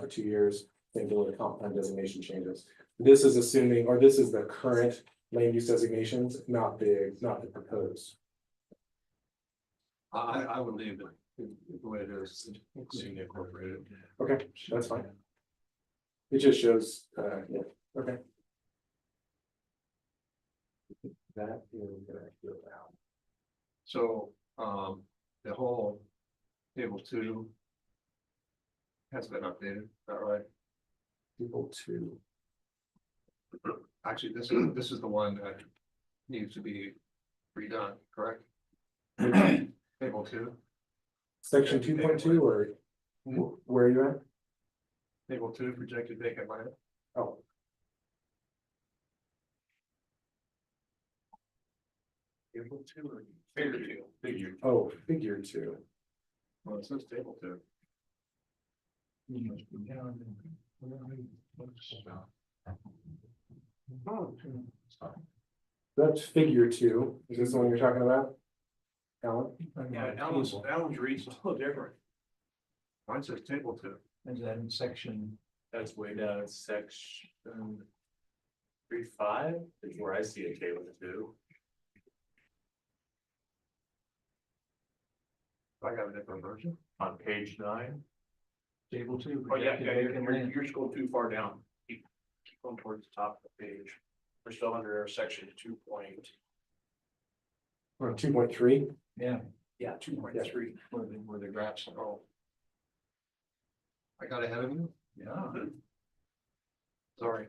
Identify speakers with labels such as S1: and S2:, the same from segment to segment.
S1: for two years, singular comp plan designation changes. This is assuming, or this is the current land use designations, not the, not the proposed.
S2: I, I I would leave it the way it is, seeing incorporated.
S1: Okay, that's fine. It just shows, uh, yeah, okay. That is gonna go down.
S2: So, um, the whole table two has been updated, is that right?
S1: People two.
S2: Actually, this is, this is the one that needs to be redone, correct? Table two,
S1: Section two point two or wh- where are you at?
S2: table two, projected vacant land.
S1: Oh,
S2: Table two or figure two? Figure.
S1: oh, figure two.
S2: Well, it says table two.
S1: That's figure two. Is this the one you're talking about? Alan?
S2: Yeah, Ellen's,
S3: oh,
S2: Ellen's reads a little different. Mine says table two.
S4: And then section,
S3: That's way down in section. Three five is where I see a table two.
S2: I got a different version.
S3: on page nine.
S4: table two.
S3: Oh, yeah,
S4: projected
S3: yeah, you're,
S4: vacant
S3: you're,
S4: land.
S3: you're scrolling too far down. Keep, keep going towards the top of the page. We're still under our section two point,
S1: Or two point three?
S4: Yeah,
S3: yeah, two point three.
S4: where the, where the graphs are all,
S2: I got ahead of you,
S4: yeah.
S2: sorry.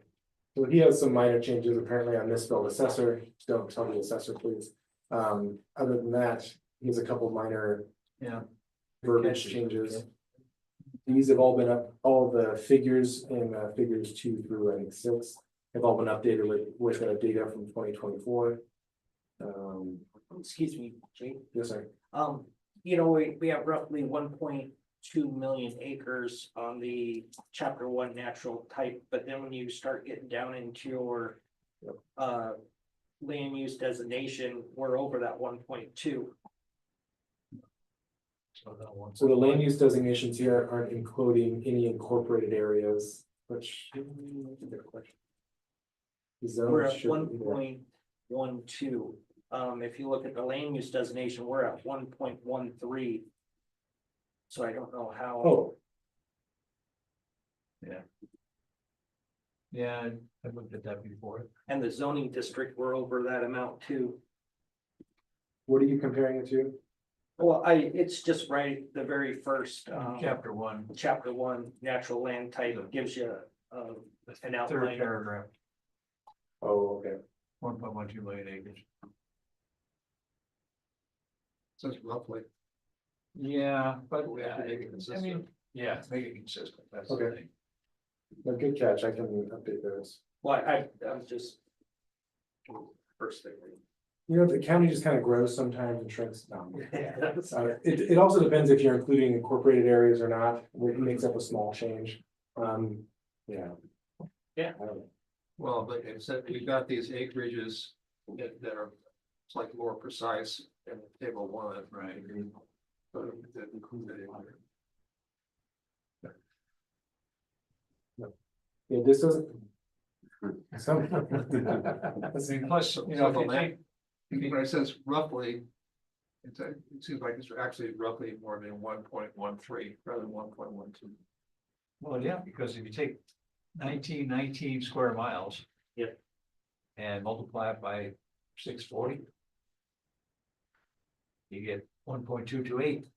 S1: So he has some minor changes. Apparently I misspelled assessor. Don't tell me assessor, please. Um, other than that, he has a couple minor.
S4: Yeah.
S1: Verbiage
S4: Catchy.
S1: changes. These have all been up, all the figures in uh, figures two through I think six have all been updated with, with uh, data from twenty twenty-four. Um,
S5: excuse me, Jake,
S1: yes, sir.
S5: um, you know, we, we have roughly one point two million acres on the chapter one natural type, but then when you start getting down into your
S1: Yep.
S5: uh, land use designation, we're over that one point two.
S4: So that one.
S1: So the land use designations here aren't including any incorporated areas, which the
S5: We're
S1: zone
S5: at one
S1: should.
S5: point one two. Um, if you look at the land use designation, we're at one point one three. So I don't know how,
S1: Oh,
S4: Yeah, I looked at that before.
S5: and the zoning district, we're over that amount too.
S1: what are you comparing it to?
S5: Well, I, it's just right, the very first, um,
S4: Mm-hmm. Chapter one,
S5: chapter one, natural land type gives you, um,
S4: the
S5: An
S4: third
S5: outline.
S4: paragraph,
S1: Oh, okay.
S4: one point one two million acres.
S2: Says roughly.
S4: Yeah, but.
S2: We have to make it
S4: I mean,
S2: consistent.
S4: yeah, make it consistent, that's the
S1: Okay.
S4: thing.
S1: No, Good catch. I can update those.
S5: well, I, I was just. First thing.
S1: You know, the county just kind of grows sometimes and shrinks. No.
S5: That's-
S1: Uh, it, it also depends if you're including incorporated areas or not,
S5: Mm-hmm.
S1: which makes up a small change. Um, yeah.
S5: Yeah.
S1: I don't know.
S2: Well, but except we got these acreages that, that are, it's like more precise in table one.
S4: Right.
S2: So that includes that in there.
S1: Yeah, this doesn't. Some.
S4: I mean, Plus, you know,
S2: So
S4: if
S2: the
S4: you
S2: land-
S4: take, if you-
S2: When it says roughly, it's, a- it seems like it's actually roughly more than one point one three rather than one point one two.
S4: Well, yeah, because if you take nineteen nineteen square miles.
S5: Yep.
S4: And multiply it by six forty. You get one point two two eight.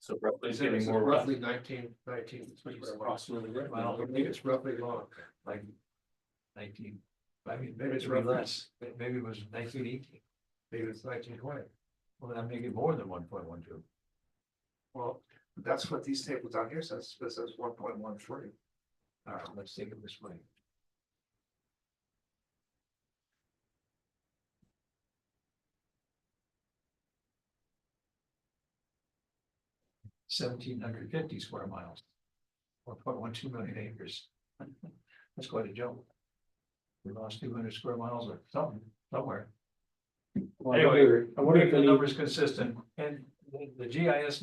S3: So roughly
S2: It's
S3: getting more rough.
S2: roughly nineteen, nineteen. it's pretty much-
S4: Well,
S2: I don't think it's roughly long.
S4: like nineteen, I mean, maybe it's really less, but maybe it was nineteen eighteen,
S2: Maybe it's nineteen twenty.
S4: well, that make it more than one point one two.
S2: Well, that's what these tables down here says, this is one point one three.
S4: All right, let's take it this way. Seventeen hundred fifty square miles. One point one two million acres. That's quite a jump. We lost two hundred square miles or something, somewhere.
S1: Well, I wonder- I wonder if
S4: Keep The
S1: any-
S4: number's consistent and the- the GIS